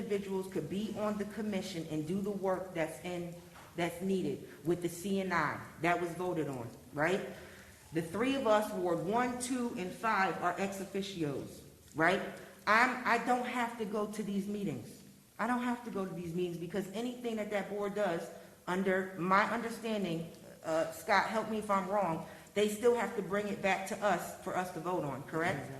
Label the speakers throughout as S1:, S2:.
S1: individuals could be on the commission and do the work that's in, that's needed with the CNI. That was voted on, right? The three of us, Ward one, two, and five are ex officios, right? I'm, I don't have to go to these meetings. I don't have to go to these meetings because anything that that board does, under my understanding, uh, Scott, help me if I'm wrong, they still have to bring it back to us for us to vote on, correct?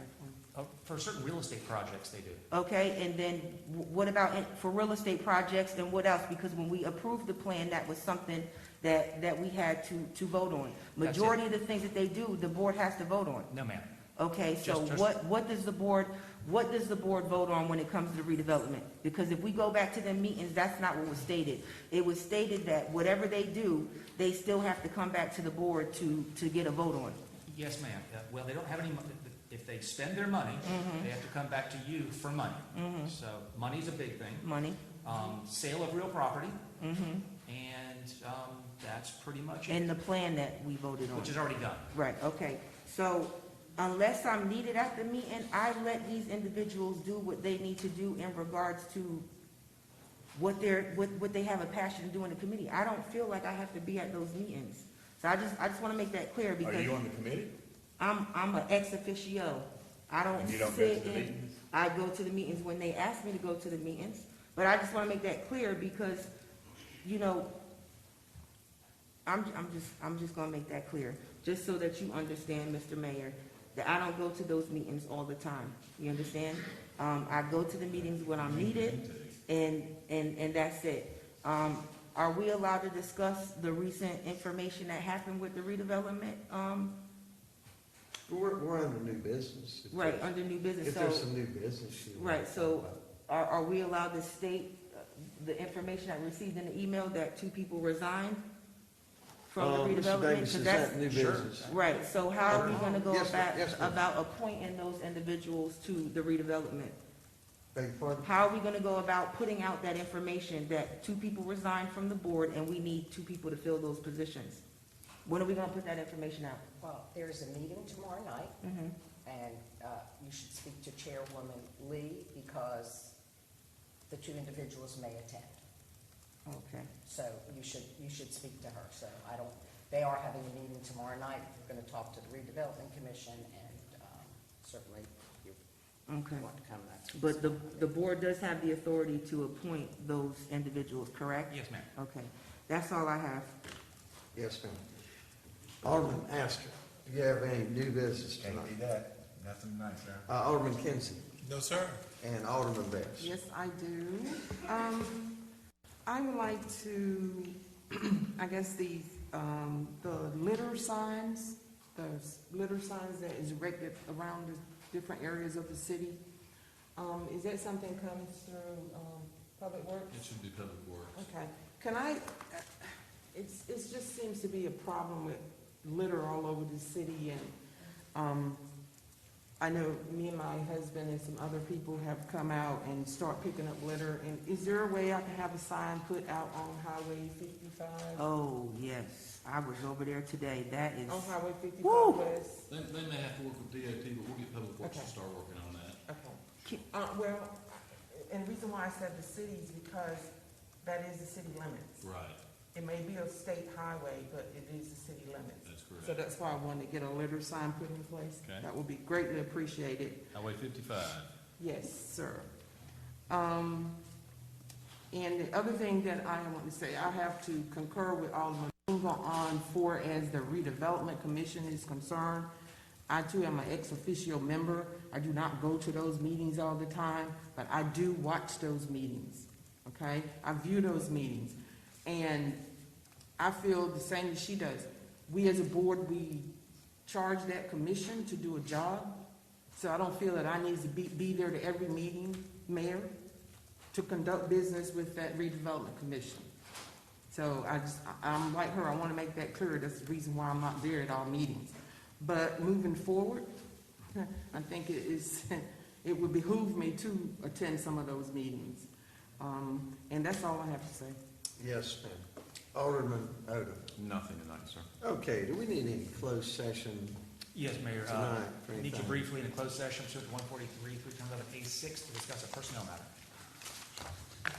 S2: Uh, For certain real estate projects, they do.
S1: Okay, and then wh- what about in- for real estate projects and what else? Because when we approved the plan, that was something that, that we had to, to vote on.
S2: That's it.
S1: Majority of the things that they do, the board has to vote on.
S2: No, ma'am.
S1: Okay, so
S2: Just- just-
S1: what, what does the board, what does the board vote on when it comes to redevelopment? Because if we go back to the meetings, that's not what was stated. It was stated that whatever they do, they still have to come back to the board to, to get a vote on.
S2: Yes, ma'am. Uh, Well, they don't have any, mon- if they spend their money, they have to come back to you for money. So money's a big thing.
S1: Money?
S2: Um, Sale of real property,
S1: Mm-hmm.
S2: and um, that's pretty much it,
S1: And the plan that we voted on.
S2: which is already done.
S1: Right, okay. So unless I'm needed at the meeting, I let these individuals do what they need to do in regards to what they're, what, what they have a passion to do in the committee. I don't feel like I have to be at those meetings. So I just, I just want to make that clear
S3: Are you
S1: because
S3: on the committee?
S1: I'm, I'm an ex officio. I don't
S3: And you don't go
S1: sit
S3: to the
S1: in.
S3: meetings?
S1: I go to the meetings when they ask me to go to the meetings, but I just want to make that clear because, you know, I'm, I'm just, I'm just gonna make that clear, just so that you understand, Mr. Mayor, that I don't go to those meetings all the time, you understand? Um, I go to the meetings when I'm needed, and, and, and that's it. Um, are we allowed to discuss the recent information that happened with the redevelopment, um,
S4: We're, we're under new business. If
S1: right,
S4: there's-
S1: under new business?
S4: If
S1: So-
S4: there's some new business. you-
S1: Right, so are, are we allowed to state uh, the information I received in the email that two people resigned from
S4: Uh,
S1: the
S4: Mr.
S1: redevelopment?
S4: Davis,
S1: 'Cause
S4: is
S1: that's-
S4: that new
S2: Sure.
S4: business?
S1: Right, so how are we gonna go
S4: Yes, ma'am.
S1: about,
S4: Yes, ma'am.
S1: about appointing those individuals to the redevelopment?
S4: Beg your pardon?
S1: How are we gonna go about putting out that information that two people resigned from the board and we need two people to fill those positions? When are we gonna put that information out?
S5: Well, there's a meeting tomorrow night,
S1: Mhm.
S5: and uh, you should speak to Chairwoman Lee because the two individuals may attend.
S1: Okay,
S5: So you should, you should speak to her. So I don't, they are having a meeting tomorrow night. We're going to talk to the redevelopment commission and um, certainly you
S1: okay.
S5: want to come. that's-
S1: But the, the board does have the authority to appoint those individuals, correct?
S2: Yes, ma'am.
S1: Okay, that's all I have.
S4: Yes, ma'am. Alderman Astor, do you have any new business
S3: Can't be
S4: tonight?
S3: that, nothing nice, huh?
S4: Uh, Alderman Kinsey
S6: No, sir.
S4: and Alderman Best.
S7: Yes, I do. Um, I would like to, I guess the, um, the litter signs, those litter signs that is erected around the different areas of the city, um, is that something comes through, um, Public Works?
S6: It should be public works.
S7: Okay, can I, it's, it just seems to be a problem with litter all over the city and, um, I know me and my husband and some other people have come out and start picking up litter. And is there a way I can have a sign put out on Highway fifty-five?
S1: Oh, yes, I was over there today, that is,
S7: On Highway
S1: Woo!
S7: fifty-five West?
S6: They, they may have to work with DOT, but we'll get public works to
S7: Okay.
S6: start working on that.
S7: Okay.
S1: Ki-
S7: Uh, well, and the reason why I said the city is because that is the city limits.
S6: Right,
S7: It may be a state highway, but it is the city limits.
S6: that's
S7: So
S6: correct.
S7: that's why I wanted to get a litter sign put in place.
S6: Okay.
S7: That would be greatly appreciated.
S6: Highway fifty-five.
S7: Yes, sir. Um, and the other thing that I want to say, I have to concur with Alderman Bingo on for as the redevelopment commission is concerned. I too am an ex officio member. I do not go to those meetings all the time, but I do watch those meetings, okay? I view those meetings. And I feel the same as she does. We as a board, we charge that commission to do a job. So I don't feel that I need to be, be there to every meeting, mayor, to conduct business with that redevelopment commission. So I just, I- I'm like her, I want to make that clear, that's the reason why I'm not there at all meetings. But moving forward, I think it is, it would behoove me to attend some of those meetings. Um, and that's all I have to say.
S4: Yes, ma'am. Alderman Odom.
S6: Nothing tonight, sir.
S4: Okay, do we need any closed session?
S2: Yes, Mayor. uh,
S4: Tonight, for
S2: Need you
S4: anything.
S2: briefly in a closed session, pursuant to one forty-three, three times out of A six, to discuss a personnel matter.